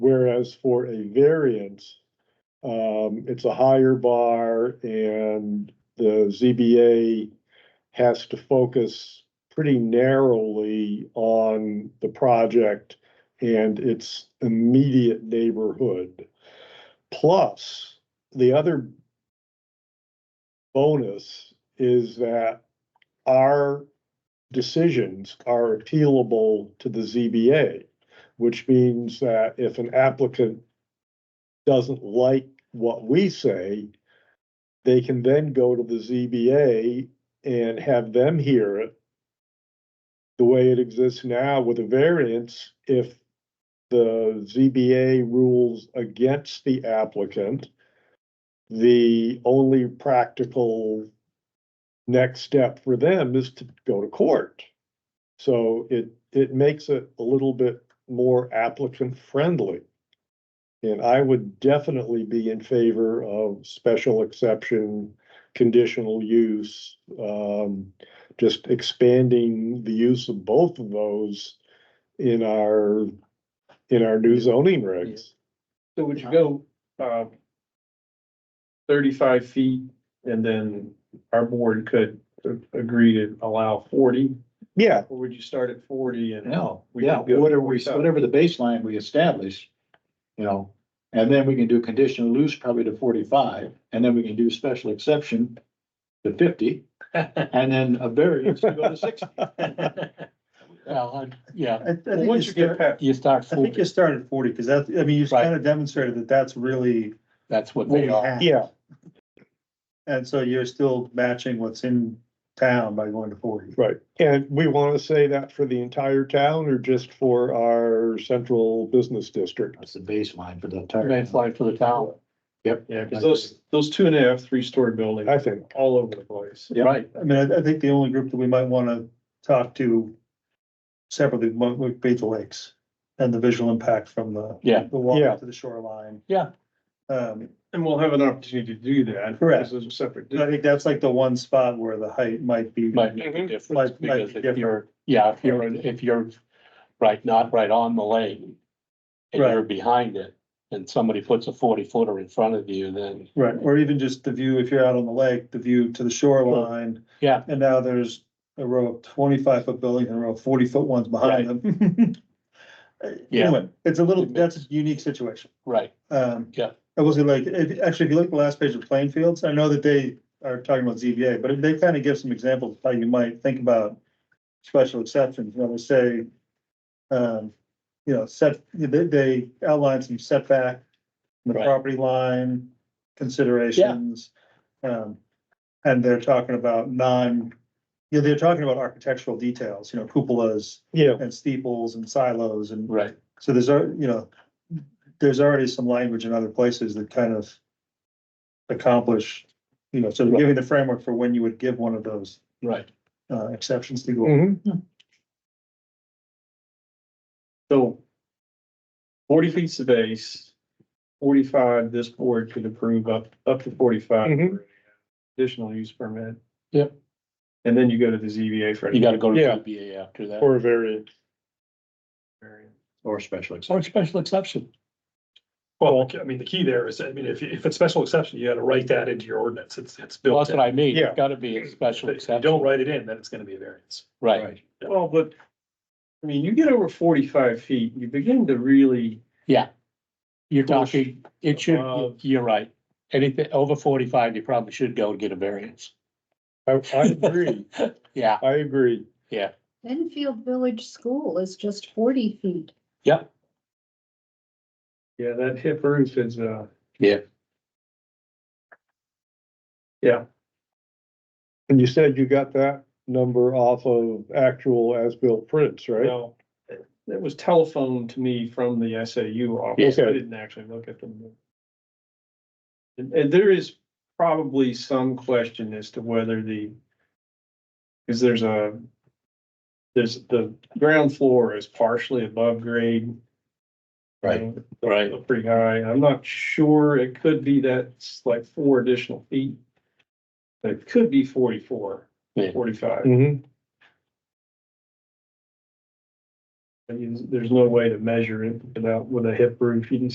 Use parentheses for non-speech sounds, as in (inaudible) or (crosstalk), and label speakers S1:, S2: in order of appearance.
S1: Whereas for a variance, um, it's a higher bar and the ZBA has to focus pretty narrowly on the project and its immediate neighborhood. Plus, the other bonus is that our decisions are appealable to the ZBA, which means that if an applicant doesn't like what we say, they can then go to the ZBA and have them hear it the way it exists now with a variance, if the ZBA rules against the applicant, the only practical next step for them is to go to court. So it, it makes it a little bit more applicant friendly. And I would definitely be in favor of special exception, conditional use, um, just expanding the use of both of those in our, in our new zoning regs.
S2: So would you go, uh, thirty-five feet and then our board could a- agree to allow forty?
S1: Yeah,
S2: Or would you start at forty and?
S3: No,
S2: We
S3: yeah,
S2: can go
S3: whatever we,
S2: 45.
S3: whatever the baseline we establish, you know, and then we can do conditional use probably to forty-five, and then we can do special exception to fifty, and then a variance to go to sixty. Well, I- yeah.
S4: I, I
S2: Well,
S4: think you
S2: Once you get
S4: start,
S2: past,
S3: You start,
S4: I think you start at forty, because that, I mean, you've
S3: Right.
S4: kind of demonstrated that that's really
S3: that's what
S4: what we have.
S1: yeah,
S4: And so you're still matching what's in town by going to forty.
S1: right. And we want to say that for the entire town or just for our central business district?
S3: That's the baseline for the entire.
S5: baseline for the town.
S3: Yep.
S2: yeah, cause those, those two and a half, three-story buildings,
S1: I think.
S2: all over the place.
S3: Yeah, Right,
S4: I mean, I, I think the only group that we might want to talk to separately would would be the lakes and the visual impact from the.
S5: Yeah.
S4: The
S1: Yeah.
S4: water to the shoreline.
S5: Yeah.
S4: Um,
S2: And we'll have an opportunity to do that.
S4: Correct.
S2: This is a separate.
S4: I think that's like the one spot where the height might be.
S5: Mm-hmm. Might make a difference,
S4: Might- might be
S5: because if you're, yeah, if you're, if you're, right, not right on the lane. And you're behind it, and somebody puts a forty footer in front of you, then,
S4: Right, or even just the view, if you're out on the lake, the view to the shoreline.
S5: Yeah.
S4: And now there's a row of twenty-five foot buildings and a row of forty-foot ones behind them. (laughs) Uh,
S5: Yeah.
S4: Anyway, it's a little,
S5: It
S4: that's a unique situation.
S5: right,
S4: Um.
S5: Yeah.
S4: I will say like, if, actually, if you look at the last page of Plainfields, I know that they are talking about ZBA, but they kind of give some examples of how you might think about special exceptions, you know, they say, um, you know, set, they, they outline some setback, the
S5: Right.
S4: property line considerations. Um, and they're talking about non, you know, they're talking about architectural details, you know, cupolas
S1: Yeah,
S4: and steeples and silos and
S5: right,
S4: so there's, al- you know, there's already some language in other places that kind of accomplish, you know, sort of giving the framework for when you would give one of those
S5: right.
S4: uh, exceptions to go.
S1: mhm.
S2: So forty feet's the base, forty-five, this board could approve up, up to forty-five.
S1: Mhm.
S2: for Additional use permit.
S5: Yep.
S2: And then you go to the ZBA for.
S5: You gotta go to
S1: Yeah.
S5: ZBA after that,
S1: Or a variance.
S2: variance.
S3: or special exception.
S5: or special exception,
S6: Well, I mean, the key there is, I mean, if, if it's special exception, you gotta write that into your ordinance. It's, it's
S5: Well,
S6: built
S5: that's
S6: in.
S5: what I mean,
S1: Yeah.
S5: it's gotta be a special
S6: If you don't
S5: exception,
S6: write it in, then it's gonna be a variance.
S5: right,
S6: Yeah.
S2: Well, but, I mean, you get over forty-five feet, you begin to really,
S5: you're
S2: Push
S5: talking, it should,
S2: above.
S5: you're right. Anything over forty-five, you probably should go and get a variance,
S1: I, I agree,
S5: yeah,
S1: I agree.
S7: Enfield Village School is just forty feet.
S5: yep,
S2: yeah, that hip roof is, uh,
S1: And you said you got that number off of actual as-built prints, right?
S2: well, it was telephoned to me from the SAU office.
S1: Yeah.
S2: I didn't actually look at them. And, and there is probably some question as to whether the, because there's a, there's, the ground floor is partially above grade.
S3: Right.
S2: Um,
S5: right,
S2: pretty high. I'm not sure. It could be that's like four additional feet. But It could be forty-four,
S5: Yeah.
S2: forty-five.
S1: Mm-hmm,
S2: I mean, there's no way to measure it without, with a hip roof. You can